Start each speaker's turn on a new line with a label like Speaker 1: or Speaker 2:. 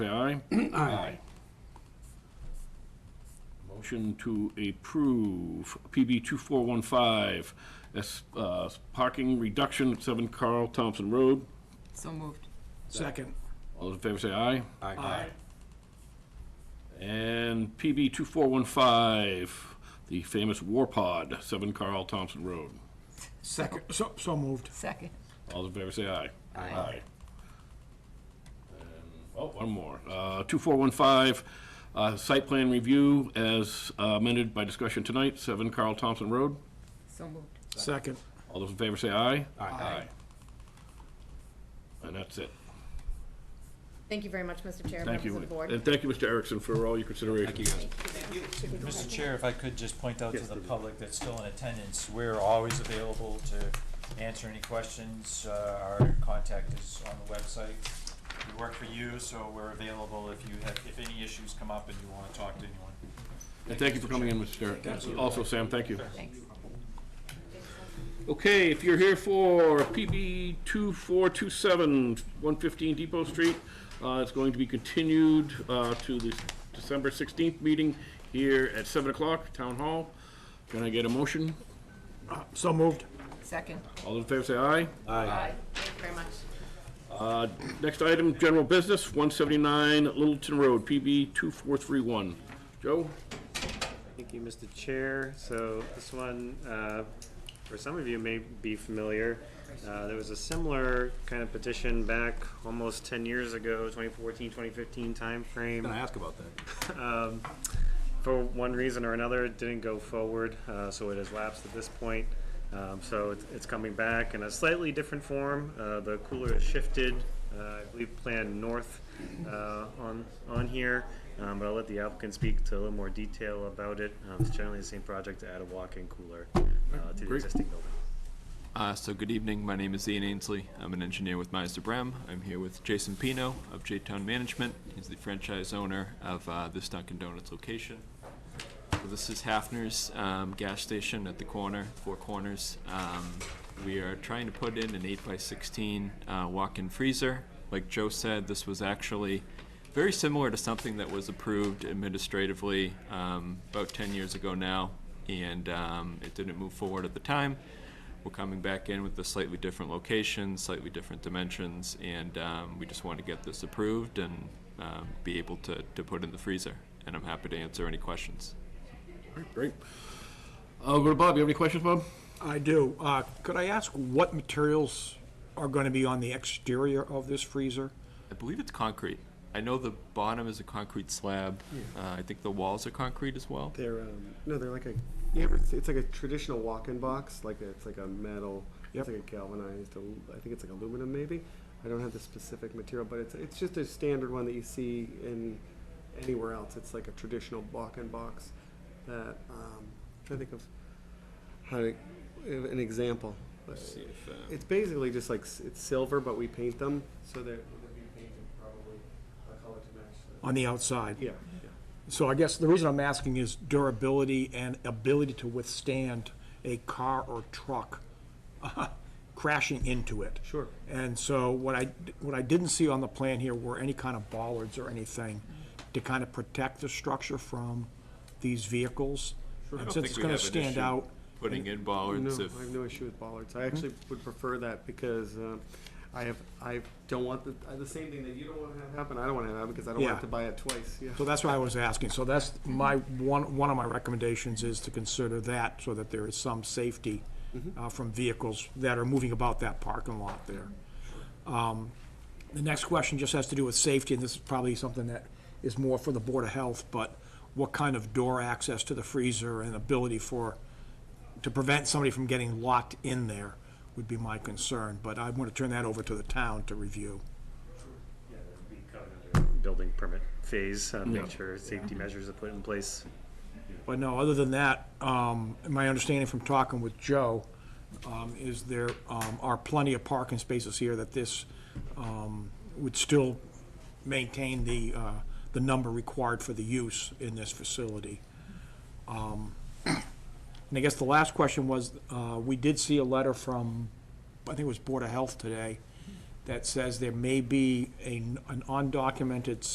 Speaker 1: Say aye. Aye. Motion to approve PB 2415, as, uh, parking reduction at 7 Carl Thompson Road.
Speaker 2: So moved.
Speaker 3: Second.
Speaker 1: All those in favor say aye.
Speaker 3: Aye.
Speaker 1: And PB 2415, the famous War Pod, 7 Carl Thompson Road.
Speaker 3: Second, so, so moved.
Speaker 2: Second.
Speaker 1: All those in favor say aye.
Speaker 2: Aye.
Speaker 1: And- Oh, one more. Uh, 2415, uh, site plan review as uh, amended by discussion tonight, 7 Carl Thompson Road.
Speaker 2: So moved.
Speaker 3: Second.
Speaker 1: All those in favor say aye.
Speaker 3: Aye.
Speaker 1: And that's it.
Speaker 4: Thank you very much, Mr. Chair,
Speaker 1: Thank
Speaker 4: members
Speaker 1: you.
Speaker 4: of the board.
Speaker 1: And thank you, Mr. Erickson, for all your consideration.
Speaker 5: Mr. Chair, if I could just point out to the public that's still in attendance, we're always available to answer any questions. Uh, Our contact is on the website. We work for you, so we're available if you have, if any issues come up and you want to talk to anyone.
Speaker 1: And thank you for coming in, Mr. Erickson. Also, Sam, thank you.
Speaker 2: Thanks.
Speaker 1: Okay, if you're here for PB 2427, 115 Depot Street, uh, it's going to be continued uh, to the December 16th meeting here at 7 o'clock, Town Hall. Can I get a motion?
Speaker 3: Uh, So moved.
Speaker 2: Second.
Speaker 1: All those in favor say aye.
Speaker 4: Aye. Thank you very much.
Speaker 1: Uh, Next item, general business, 179 Littleton Road, PB 2431. Joe?
Speaker 6: Thank you, Mr. Chair. So this one, uh, for some of you may be familiar, uh, there was a similar kind of petition back almost 10 years ago, 2014, 2015 timeframe
Speaker 3: ask about that.
Speaker 6: um, for one reason or another, it didn't go forward, uh, so it has lapsed at this point. Um, so it's, it's coming back in a slightly different form. Uh, the cooler has shifted, uh, I believe, planned north uh, on on here. Um, but I'll let the applicant speak to a little more detail about it. Um, it's generally the same project to add a walk-in cooler uh, to the
Speaker 1: Great.
Speaker 6: existing building.
Speaker 7: Uh, so good evening. My name is Ian Ainsley. I'm an engineer with Meister Brem. I'm here with Jason Pino of J-Town Management. He's the franchise owner of uh, this Dunkin' Donuts location. So this is Hafner's um, gas station at the corner, Four Corners. Um, we are trying to put in an 8 by 16 uh, walk-in freezer. Like Joe said, this was actually very similar to something that was approved administratively um, about 10 years ago now, and um, it didn't move forward at the time. We're coming back in with a slightly different location, slightly different dimensions, and um, we just want to get this approved and um, be able to, to put in the freezer. And I'm happy to answer any questions.
Speaker 1: Great. I'll Uh, go to Bob. You have any questions, Bob?
Speaker 3: I do. Uh, could I ask what materials are gonna be on the exterior of this freezer?
Speaker 7: I believe it's concrete. I know the bottom is a concrete slab. Uh, I think the walls are concrete as well.
Speaker 8: They're um, no, they're like a you ever, it's like a traditional walk-in box, like a, it's like a metal,
Speaker 3: Yep.
Speaker 8: it's like a galvanized. al- I think it's like aluminum maybe. I don't have the specific material, but it's it's just a standard one that you see in anywhere else. It's like a traditional walk-in box that um, I'm trying to think of how to give an example.
Speaker 7: See if, uh,
Speaker 8: It's basically just like s- it's silver, but we paint them so they're, they'll be painted probably a color to match. the-
Speaker 3: On the outside?
Speaker 8: Yeah, yeah.
Speaker 3: So I guess the reason I'm asking is durability and ability to withstand a car or truck uh, crashing into it.
Speaker 8: Sure.
Speaker 3: And so what I, what I didn't see on the plan here were any kind of bollards or anything to kind of protect the structure from these vehicles.
Speaker 7: I
Speaker 3: And since
Speaker 7: don't think
Speaker 3: it's
Speaker 7: we
Speaker 3: gonna
Speaker 7: have an
Speaker 3: stand
Speaker 7: issue
Speaker 3: out,
Speaker 7: Putting in
Speaker 8: No,
Speaker 7: bollards if.
Speaker 8: I have no issue with bollards. I actually would prefer that because um, I have, I don't want the, uh, the same thing that you don't want to have happen, I don't want to have happen because I don't want
Speaker 3: Yeah.
Speaker 8: to buy it twice, yeah.
Speaker 3: so that's what I was asking. So that's my, one, one of my recommendations is to consider that so that there is some safety uh, from vehicles that are moving about that parking lot there. Um, The next question just has to do with safety, and this is probably something that is more for the Board of Health, but what kind of door access to the freezer and ability for, to prevent somebody from getting locked in there would be my concern, but I want to turn that over to the town to review.
Speaker 6: Building permit phase, uh, make sure safety measures are put in place.
Speaker 3: But no, other than that, um, my understanding from talking with Joe, um, is there, um, are plenty of parking spaces here that this, um, would still maintain the, uh, the number required for the use in this facility. Um, And I guess the last question was, uh, we did see a letter from, I think it was Board of Health today, that says there may be a- an undocumented